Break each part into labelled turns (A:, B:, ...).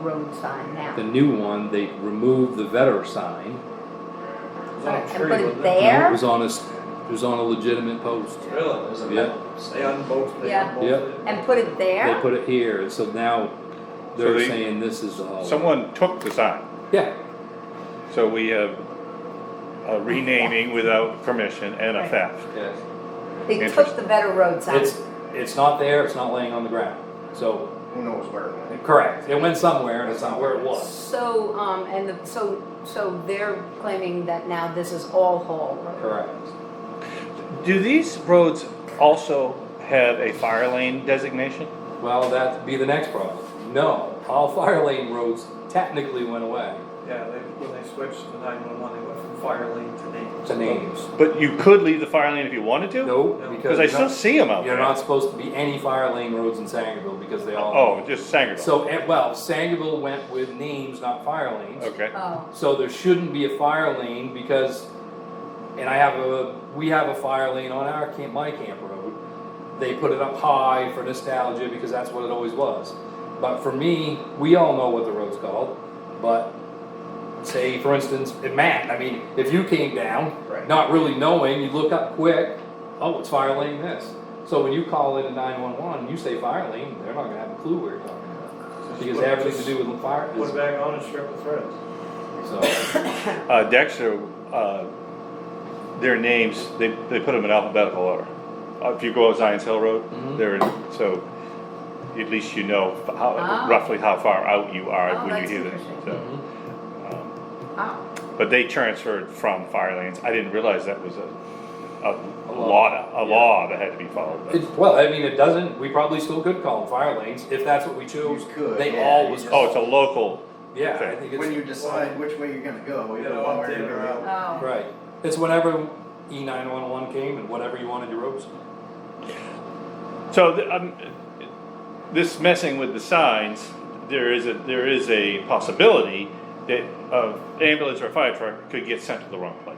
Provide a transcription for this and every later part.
A: road sign now.
B: The new one, they removed the vetter sign.
C: It's on a
A: And
C: tree,
A: put it
C: wasn't it?
B: and It
A: there,
B: was on a, s- it was on a legitimate post.
C: Really? There's a
B: Yeah.
C: metal- They unbolted, they
A: Yeah.
C: unbolted it.
A: and put it
B: They
A: there,
B: put it here, so now
D: So
B: they're
D: they-
B: saying this is all.
D: Someone took the sign,
B: Yeah,
D: so we have a renaming without permission and a
A: Right.
D: theft.
B: yes.
A: they took
D: Interesting.
A: the better road sign.
B: It's, it's not there, it's not laying on the ground, so,
E: Who knows where it went?
B: correct, it went somewhere, and it's not where it was.
A: So, um, and the, so, so they're claiming that now this is all Hall Road.
B: Correct.
D: Do these roads also have a fire lane designation?
B: Well, that'd be the next problem. No, all fire lane roads technically went away
C: Yeah, they, when they switched to nine-one-one, they went from fire lane to name.
B: to names.
D: But you could leave the fire lane if you wanted to?
B: No,
D: Because
B: because
D: I
B: you're
D: still
B: not-
D: see them out
B: you're
D: there.
B: not supposed to be any fire lane roads in Sangerville because they all.
D: Oh, just Sangerville,
B: So, eh, well, Sangerville went with names, not fire lanes.
D: okay.
A: Oh,
B: So there shouldn't be a fire lane because, and I have a, we have a fire lane on our camp, my camp road. They put it up high for nostalgia because that's what it always was. But for me, we all know what the road's called, but say, for instance, in Matt, I mean, if you came down,
E: Right.
B: not really knowing, you look up quick, oh, it's fire lane this. So when you call in a nine-one-one, you say fire lane, they're not gonna have a clue where you're talking about. Because everything to do with the fire
C: Put it
B: is,
C: back on and strip the threads.
B: so.
D: Uh, Dexter, uh, their names, they, they put them in alphabetical order. Uh, If you go up Zion's Hill
B: Mhm.
D: Road, they're, in- so at least you know f- how,
A: Ah.
D: roughly how far out you
A: Oh,
D: are when you
A: that's
D: hear them,
A: interesting.
D: so.
B: Mhm.
D: um,
A: wow,
D: But they transferred from fire lanes, I didn't realize that was a, a
B: A law.
D: law, a
B: Yeah.
D: law that had to be followed.
B: It, well, I mean, it doesn't, we probably still could call them fire lanes, if that's what we chose.
E: You could,
B: They
E: yeah, you
B: always
E: just-
D: Oh, it's
B: called,
D: a local,
B: yeah, I think
E: When
B: it's,
E: you decide which way you're gonna go,
C: We
E: either
C: gotta
E: one way
C: update
E: or
C: it
E: the other.
A: oh,
B: right, it's whenever E nine one one came and whatever you wanted your roads.
D: so, th- um, this messing with the signs, there is a, there is a possibility that a ambulance or a fire truck could get sent to the wrong place.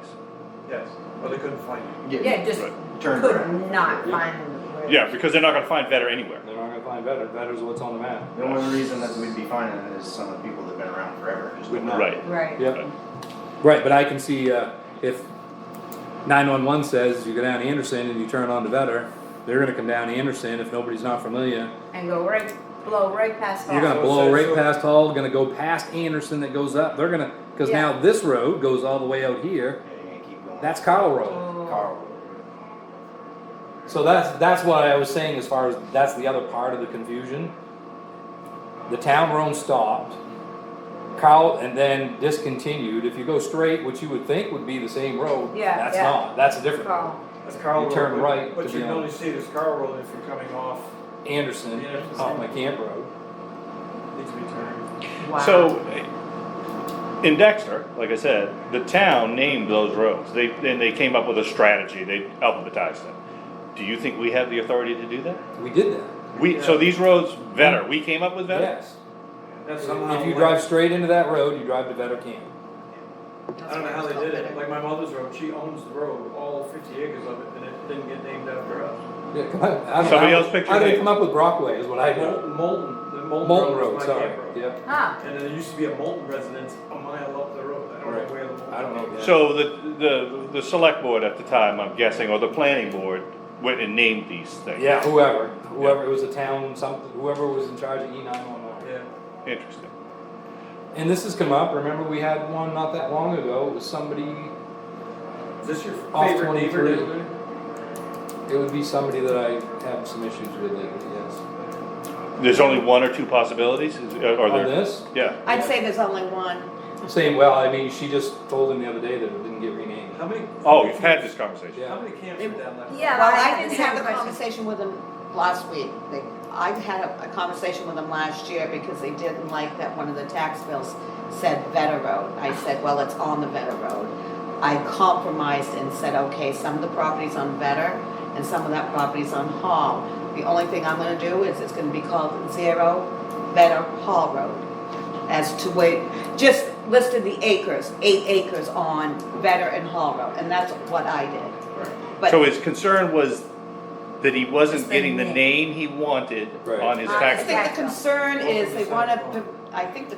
C: Yes, but they couldn't find it.
A: yeah, just
D: Right.
E: Turn
A: could
E: around.
A: not
B: Yeah.
A: find them. where-
D: Yeah, because they're not gonna find better anywhere.
B: They're not gonna find better, better's what's on the map.
E: The only reason that we'd be finding it is some of the people that've been around forever. just
B: Would
E: don't
B: not.
E: know.
D: Right.
A: Right.
B: Yep, right, but I can see, uh, if nine one one says you go down Anderson and you turn on to Vetter, they're gonna come down Anderson if nobody's not familiar.
A: And go right, blow right past
B: You're
A: Hall.
B: gonna
C: So
B: blow
C: it's-
B: right
C: so-
B: past Hall, gonna go past Anderson that goes up, they're gonna, cause
A: Yeah.
B: now this road goes all the way out here,
E: Yeah, you're gonna keep going.
B: that's Kyle Road.
A: Oh.
E: Carl.
B: So that's, that's what I was saying as far as, that's the other part of the confusion. The town road stopped, Carl, and then discontinued, if you go straight, which you would think would be the same road,
A: Yeah,
B: that's
A: yeah.
B: not, that's a different.
A: Carl.
C: That's Carl
B: You
C: Road.
B: turn
C: but-
B: right to
C: But you
B: be
C: can
B: on-
C: only see this Carl Road if you're coming off,
B: Anderson,
C: Yeah, it's the
B: off
C: same.
B: my camp road.
C: needs to be turned.
A: Wow.
D: So, in Dexter, like I said, the town named those roads. They, then they came up with a strategy, they alphabetized them. Do you think we have the authority to do that?
B: We did that,
D: We, so
C: Yeah.
D: these roads, Vetter, we came up with Vetter?
B: yes.
C: That's somehow.
B: If you
C: went-
B: drive straight into that road, you drive to Vetter Camp.
C: I don't know how they did it, like my mother's road, she owns the road, all fifty acres of it, and it didn't get named after us.
B: Yeah, come on. I don't
D: Somebody
B: know.
D: else picked your
B: How do they
D: name.
B: come up with Brockway is what I do.
C: Molten, Molten, the Molten.
B: Molten
C: was
B: Road,
C: my
B: sorry,
C: camp road.
B: yeah,
A: Huh,
C: And then there used to be a Molten residence a mile up the road, I don't
B: Right.
C: know where the Moulton.
B: I don't know. that.
D: So the, the, the select board at the time, I'm guessing, or the planning board, went and named these things.
B: Yeah, whoever, whoever, it was a town, something, whoever was in charge of E nine one one.
C: Yeah,
D: Interesting.
B: And this has come up, remember we had one not that long ago, it was somebody,
C: is this your
B: Off
C: favorite neighbor
B: 23.
C: down there?
B: it would be somebody that I have some issues with lately, yes.
D: There's only one or two possibilities, is- are
B: On
D: there?
B: this,
D: Yeah,
F: I'd say there's only one.
B: same, well, I mean, she just told him the other day that it didn't get renamed.
C: How many?
D: oh, you've had this conversation.
B: Yeah.
C: How many camps are down that?
A: Yeah.
F: Well,
A: I had the
F: I didn't
A: same
F: have the
A: question.
F: conversation with them last week. They- I had a- a conversation with them last year because they didn't like that one of the tax bills said Vetter Road. I said, well, it's on the Vetter Road. I compromised and said, okay, some of the property's on Vetter and some of that property's on Hall. The only thing I'm gonna do is it's gonna be called Zero Vetter Hall Road. as to wait, just listed the acres, eight acres on Vetter and Hall Road, and that's what I did. But
D: So his concern was that he
A: Just
D: wasn't
A: the
D: getting the
A: name. Ah,
D: name he wanted
B: Right.
D: on his
A: I
F: I
D: tax bill.
F: think the concern is they wanna, I think the